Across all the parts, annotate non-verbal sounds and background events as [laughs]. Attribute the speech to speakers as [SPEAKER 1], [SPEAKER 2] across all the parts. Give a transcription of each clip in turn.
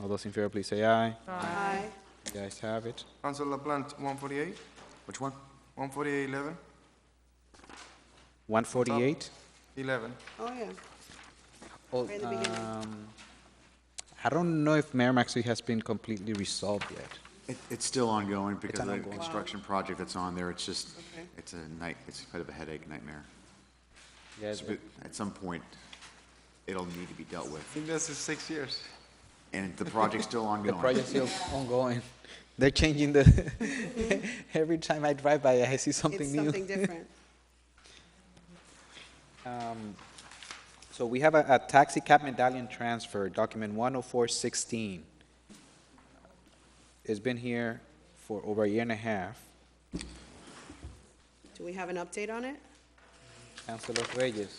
[SPEAKER 1] All those in favor, please say aye.
[SPEAKER 2] Aye.
[SPEAKER 1] The ayes have it.
[SPEAKER 3] Councilor Plant, one forty-eight,
[SPEAKER 4] Which one?
[SPEAKER 3] one forty-eight, eleven,
[SPEAKER 1] 148?
[SPEAKER 3] eleven.
[SPEAKER 2] Oh, yeah.
[SPEAKER 1] Oh,
[SPEAKER 2] Right in the beginning.
[SPEAKER 1] um, I don't know if Merrimack Street has been completely resolved yet.
[SPEAKER 4] It, it's still ongoing because of the
[SPEAKER 1] ongoing.
[SPEAKER 4] construction project that's on there, it's just,
[SPEAKER 2] Okay.
[SPEAKER 4] it's a night, it's kind of a headache nightmare.
[SPEAKER 1] Yeah,
[SPEAKER 4] So At some point, it'll need to be dealt
[SPEAKER 3] I
[SPEAKER 4] with,
[SPEAKER 3] think that's six years.
[SPEAKER 4] and the project's still
[SPEAKER 1] The
[SPEAKER 4] ongoing.
[SPEAKER 1] project's still [laughs] ongoing. They're changing the, [laughs] every time I drive by, I see something
[SPEAKER 2] It's
[SPEAKER 1] new. [laughs]
[SPEAKER 2] something different.
[SPEAKER 1] So we have a, a taxi cab medallion transfer, document one oh four sixteen. It's been here for over a year and a half.
[SPEAKER 2] Do we have an update on it?
[SPEAKER 1] Councilor Reyes,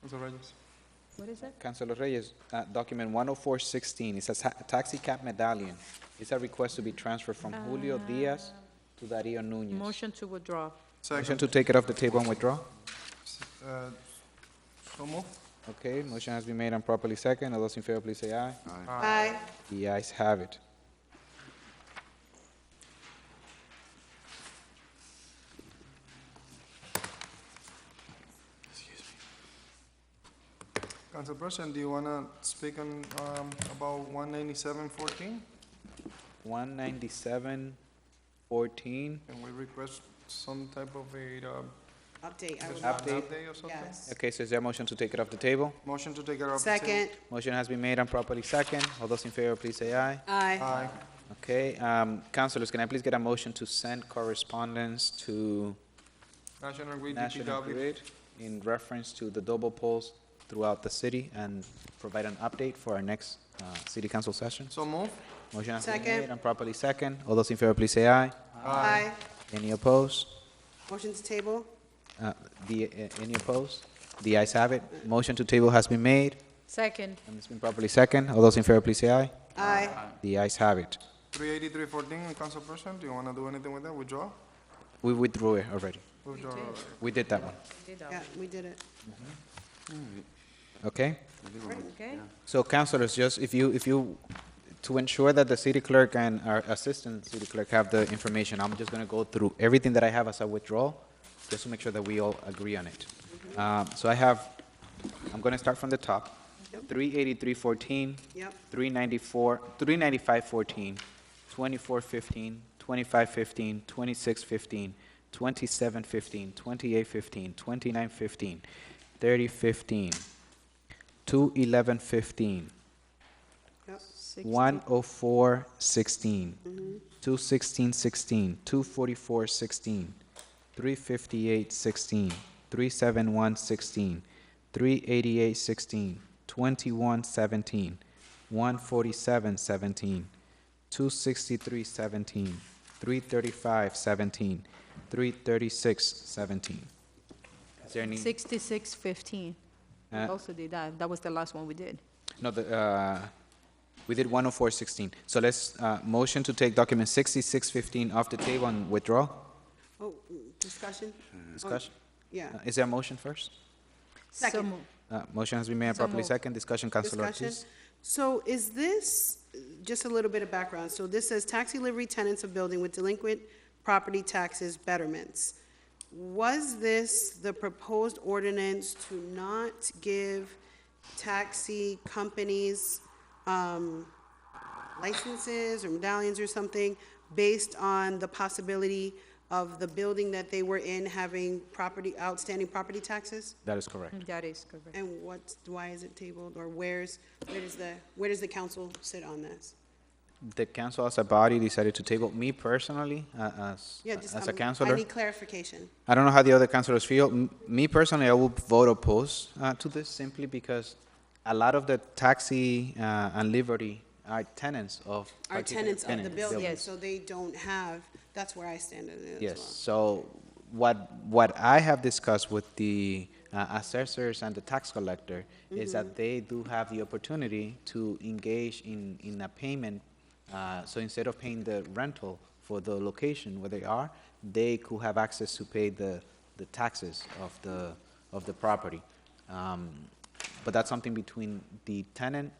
[SPEAKER 3] Councilor Reyes.
[SPEAKER 5] What is it?
[SPEAKER 1] Councilor Reyes, uh, document one oh four sixteen, it's a ta- taxi cab medallion. It's a request to be transferred from Julio Diaz to Darío Núñez.
[SPEAKER 5] Motion to withdraw.
[SPEAKER 1] Motion
[SPEAKER 3] Second,
[SPEAKER 1] to take it off the table and withdraw?
[SPEAKER 3] uh, so move.
[SPEAKER 1] Okay, motion has been made and properly second. All those in favor, please say aye.
[SPEAKER 2] Aye.
[SPEAKER 1] The ayes have it.
[SPEAKER 3] Council President, do you wanna speak on, um, about one ninety-seven fourteen?
[SPEAKER 1] One ninety-seven fourteen.
[SPEAKER 3] And we request some type of a, uh,
[SPEAKER 2] Update, I
[SPEAKER 3] just
[SPEAKER 2] would,
[SPEAKER 3] an
[SPEAKER 1] Update.
[SPEAKER 3] update or something?
[SPEAKER 2] yes.
[SPEAKER 1] Okay, so is there a motion to take it off the table?
[SPEAKER 3] Motion to take it up.
[SPEAKER 2] Second,
[SPEAKER 1] Motion has been made and properly second. All those in favor, please say aye.
[SPEAKER 2] aye.
[SPEAKER 3] Aye.
[SPEAKER 1] Okay, um, councilors, can I please get a motion to send correspondence to
[SPEAKER 3] National Grid,
[SPEAKER 1] National
[SPEAKER 3] DPW.
[SPEAKER 1] Grid in reference to the double poles throughout the city and provide an update for our next, uh, city council session?
[SPEAKER 3] So move.
[SPEAKER 1] Motion has been
[SPEAKER 2] Second.
[SPEAKER 1] made and properly second. All those in favor, please say aye.
[SPEAKER 2] Aye.
[SPEAKER 1] Any opposed?
[SPEAKER 2] Motion to table?
[SPEAKER 1] Uh, The, uh, any opposed? The ayes have it. Motion to table has been made,
[SPEAKER 5] Second,
[SPEAKER 1] and it's been properly second. All those in favor, please say aye.
[SPEAKER 2] Aye.
[SPEAKER 1] The ayes have it.
[SPEAKER 3] Three eighty-three fourteen, Council President, do you wanna do anything with that? Withdraw?
[SPEAKER 1] We withdrew it already.
[SPEAKER 3] Withdraw.
[SPEAKER 1] We did that one,
[SPEAKER 2] Yeah, we did it.
[SPEAKER 1] okay?
[SPEAKER 5] okay?
[SPEAKER 1] So councilors, just if you, if you, to ensure that the city clerk and our assistant city clerk have the information, I'm just gonna go through everything that I have as a withdrawal, just to make sure that we all agree on it. Um, so I have, I'm gonna start from the top.
[SPEAKER 2] Yep.
[SPEAKER 1] Three eighty-three fourteen.
[SPEAKER 2] Yep.
[SPEAKER 1] Three ninety-four, three ninety-five fourteen, twenty-four fifteen, twenty-five fifteen, twenty-six fifteen, twenty-seven fifteen, twenty-eight fifteen, twenty-nine fifteen, thirty fifteen, two eleven fifteen,
[SPEAKER 2] Yep.
[SPEAKER 1] 104, 16, 216, 16, 244, 16, 358, 16, 371, 16, 388, 16, 21, 17, 147, 17, 263, 17, 335, 17, 336, 17. Is there any?
[SPEAKER 5] Sixty-six fifteen. We
[SPEAKER 1] Uh,
[SPEAKER 5] also did that. That was the last one we did.
[SPEAKER 1] No, the, uh, we did 10416. So let's, uh, motion to take document 6615 off the table and withdraw.
[SPEAKER 2] Oh, mm, discussion?
[SPEAKER 1] Discussion.
[SPEAKER 2] Oh, Yeah.
[SPEAKER 1] Uh, Is there a motion first?
[SPEAKER 5] So
[SPEAKER 2] Second.
[SPEAKER 5] moved.
[SPEAKER 1] Uh, Motion has been made and
[SPEAKER 5] So
[SPEAKER 1] properly
[SPEAKER 5] moved.
[SPEAKER 1] second. Discussion, Councilor
[SPEAKER 2] Discussion.
[SPEAKER 1] Ortiz.
[SPEAKER 2] So is this, just a little bit of background, so this says taxi livery tenants of building with delinquent property taxes betterments. Was this the proposed ordinance to not give taxi companies um, licenses or medallions or something based on the possibility of the building that they were in having property, outstanding property taxes?
[SPEAKER 1] That is correct.
[SPEAKER 5] That is correct.
[SPEAKER 2] And what, why is it tabled, or where's, where does the, where does the council sit on this?
[SPEAKER 5] Mm-hmm.
[SPEAKER 1] The council as a body decided to table, me personally, uh, as,
[SPEAKER 2] Yeah, just,
[SPEAKER 1] as a
[SPEAKER 2] um, I
[SPEAKER 1] councilor.
[SPEAKER 2] need clarification.
[SPEAKER 1] I don't know how the other councilors feel. M- Me personally, I will vote opposed uh, to this simply because a lot of the taxi uh, and livery are tenants of.
[SPEAKER 2] Our
[SPEAKER 1] particular
[SPEAKER 2] tenants of the
[SPEAKER 1] tenant-
[SPEAKER 2] building,
[SPEAKER 5] Yes.
[SPEAKER 2] so they don't have, that's where I stand on it
[SPEAKER 1] Yes,
[SPEAKER 2] as
[SPEAKER 1] so what, what I have discussed with the uh, assessors and the tax collector is that they do have the opportunity to engage in, in a payment. uh, So instead of paying the rental for the location where they are, they could have access to pay the, the taxes of the, of the property. Um, But that's something between the tenant